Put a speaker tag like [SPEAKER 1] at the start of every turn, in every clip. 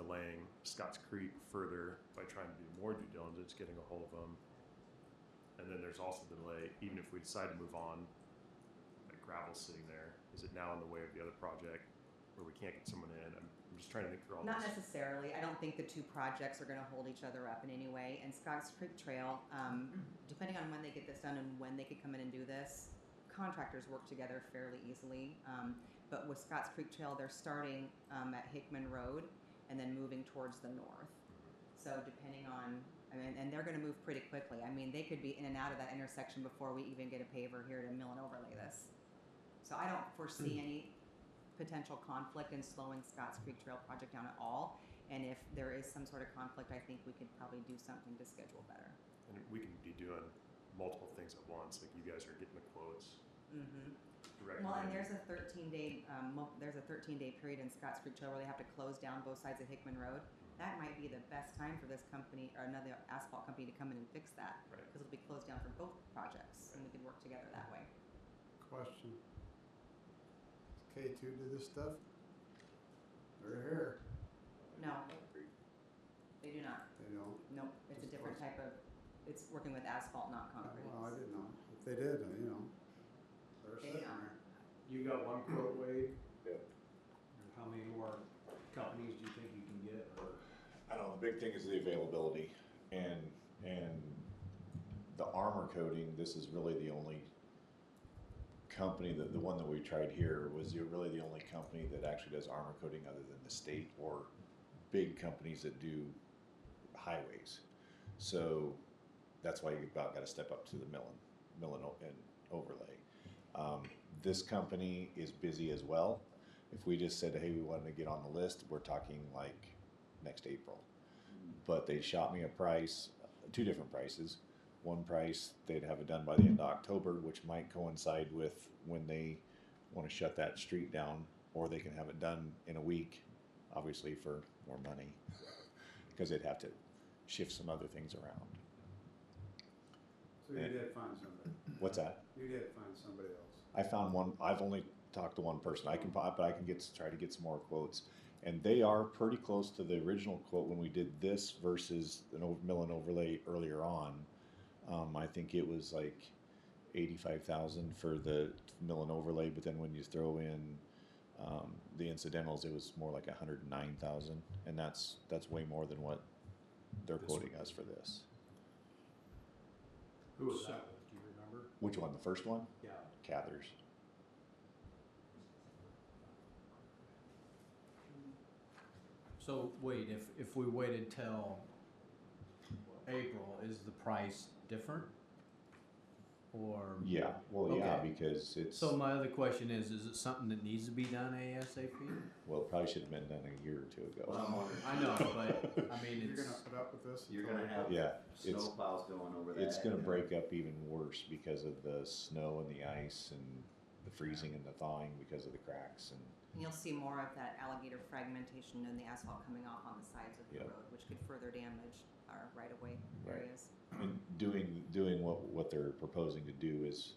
[SPEAKER 1] delaying Scotts Creek further by trying to do more due diligence, getting a hold of them. And then there's also the delay, even if we decide to move on, like gravel's sitting there, is it now in the way of the other project where we can't get someone in? I'm, I'm just trying to think through all
[SPEAKER 2] Not
[SPEAKER 1] this.
[SPEAKER 2] necessarily. I don't think the two projects are going to hold each other up in any way. And Scotts Creek Trail, um, depending on when they get this done and when they could come in and do this, contractors work together fairly easily. Um, but with Scotts Creek Trail, they're starting um, at Hickman Road and then moving towards the north. So depending on, I mean, and they're going to move pretty quickly. I mean, they could be in and out of that intersection before we even get a paver here to mill and overlay this. So I don't foresee any potential conflict in slowing Scotts Creek Trail project down at all. And if there is some sort of conflict, I think we could probably do something to schedule better.
[SPEAKER 1] And we can be doing multiple things at once, like you guys are getting the quotes
[SPEAKER 2] Mm-hmm.
[SPEAKER 1] directly.
[SPEAKER 2] Well, and there's a 13 day um, mo- there's a 13 day period in Scotts Creek Trail where they have to close down both sides of Hickman Road. That might be the best time for this company or another asphalt company to come in and fix that
[SPEAKER 1] Right.
[SPEAKER 2] because it'll be closed down for both projects, and we could work together that way.
[SPEAKER 3] Question. K two to this stuff? They're here,
[SPEAKER 2] No, they do not.
[SPEAKER 3] they don't.
[SPEAKER 2] Nope, it's a
[SPEAKER 3] Just
[SPEAKER 2] different type
[SPEAKER 3] close.
[SPEAKER 2] of. It's working with asphalt, not concrete.
[SPEAKER 3] Well, I didn't know. If they did, then, you know, they're
[SPEAKER 2] They
[SPEAKER 3] sitting
[SPEAKER 2] don't.
[SPEAKER 3] there.
[SPEAKER 4] You got one quote, Wade?
[SPEAKER 5] Yeah.
[SPEAKER 4] How many more companies do you think you can get, or?
[SPEAKER 5] I don't know, the big thing is the availability and, and the armor coating, this is really the only company that, the one that we tried here was the- really the only company that actually does armor coating other than the state or big companies that do highways. So that's why you about gotta step up to the milling, milling o- and overlay. Um, this company is busy as well. If we just said, hey, we wanted to get on the list, we're talking like next April. But they shot me a price, two different prices. One price they'd have it done by the end of October, which might coincide with when they want to shut that street down, or they can have it done in a week, obviously for more money, because they'd have to shift some other things around.
[SPEAKER 3] So you
[SPEAKER 5] Yeah.
[SPEAKER 3] did find somebody.
[SPEAKER 5] What's that?
[SPEAKER 3] You did find somebody else.
[SPEAKER 5] I found one. I've only talked to one person. I can, but I can get try to get some more quotes, and they are pretty close to the original quote when we did this versus an over, mill and overlay earlier on. Um, I think it was like eighty-five thousand for the mill and overlay, but then when you throw in um, the incidentals, it was more like a hundred and nine thousand, and that's that's way more than what they're
[SPEAKER 4] This
[SPEAKER 5] quoting
[SPEAKER 4] one.
[SPEAKER 5] us for this.
[SPEAKER 4] Who was that with, do you remember?
[SPEAKER 5] Which one? The first one,
[SPEAKER 4] Yeah.
[SPEAKER 5] Cathers.
[SPEAKER 6] So wait, if, if we waited till April, is the price different? Or?
[SPEAKER 5] Yeah. Well, yeah,
[SPEAKER 6] Okay.
[SPEAKER 5] because it's
[SPEAKER 6] So my other question is, is it something that needs to be done ASAP?
[SPEAKER 5] Well, it probably should have been done a year or two ago.
[SPEAKER 6] Oh, I know, but I mean,
[SPEAKER 3] You're gonna
[SPEAKER 6] it's,
[SPEAKER 3] put up with this?
[SPEAKER 7] You're
[SPEAKER 3] until-
[SPEAKER 7] gonna have
[SPEAKER 5] Yeah, it's-
[SPEAKER 7] snowplows going over that.
[SPEAKER 5] it's going to break up even worse because of the snow and the ice and the freezing and the thawing because of the cracks and
[SPEAKER 2] And you'll see more of that alligator fragmentation and the asphalt coming off on the sides of the
[SPEAKER 5] Yep.
[SPEAKER 2] road, which could further damage our right-of-way
[SPEAKER 5] Right.
[SPEAKER 2] areas.
[SPEAKER 5] and doing doing what what they're proposing to do is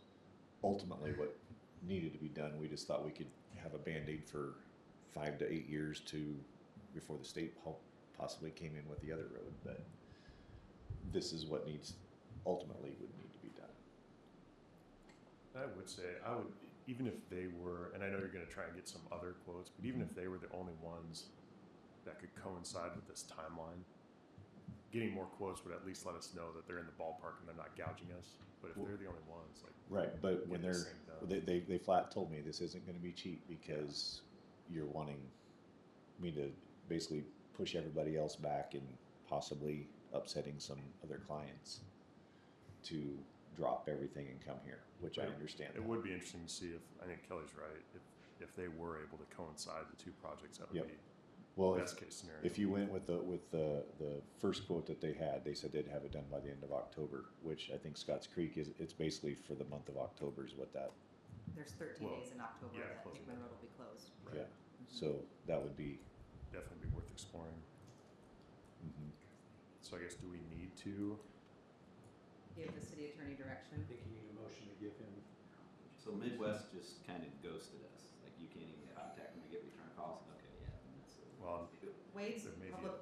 [SPEAKER 5] ultimately what needed to be done. We just thought we could have a band aid for five to eight years to before the state po- possibly came in with the other road, but this is what needs ultimately would need to be done.
[SPEAKER 1] I would say I would even if they were, and I know you're going to try and get some other quotes, but even if they were the only ones that could coincide with this timeline, getting more quotes would at least let us know that they're in the ballpark and they're not gouging us. But if they're the only ones, like
[SPEAKER 5] Right, but when
[SPEAKER 1] Get this
[SPEAKER 5] they're
[SPEAKER 1] thing done.
[SPEAKER 5] they, they they flat told me this isn't going to be cheap because you're wanting me to basically push everybody else back and possibly upsetting some other clients to drop everything and come here, which I understand.
[SPEAKER 1] it
[SPEAKER 5] that.
[SPEAKER 1] would be interesting to see if I think Kelly's right. If if they were able to coincide the two projects, that would
[SPEAKER 5] Yep.
[SPEAKER 1] be
[SPEAKER 5] well,
[SPEAKER 1] best
[SPEAKER 5] if,
[SPEAKER 1] case scenario.
[SPEAKER 5] if you went with the with the the first quote that they had, they said they'd have it done by the end of October, which I think Scotts Creek is it's basically for the month of October is what that
[SPEAKER 2] There's 13
[SPEAKER 1] Well,
[SPEAKER 2] days in October
[SPEAKER 1] yeah,
[SPEAKER 2] that
[SPEAKER 1] closing
[SPEAKER 2] Hickman
[SPEAKER 1] that.
[SPEAKER 2] Road will be closed.
[SPEAKER 1] Right.
[SPEAKER 5] yeah. So that would be
[SPEAKER 1] definitely be worth exploring.
[SPEAKER 5] mhm.
[SPEAKER 1] So I guess do we need to?
[SPEAKER 2] Give the city
[SPEAKER 4] I
[SPEAKER 2] attorney direction.
[SPEAKER 4] think you need a motion to give him,
[SPEAKER 7] So Midwest just kind of ghosted us. Like you can't even contact them to get return calls. Okay, yeah. that's-
[SPEAKER 1] Well,
[SPEAKER 2] Wade's
[SPEAKER 1] There may be
[SPEAKER 2] public
[SPEAKER 1] a-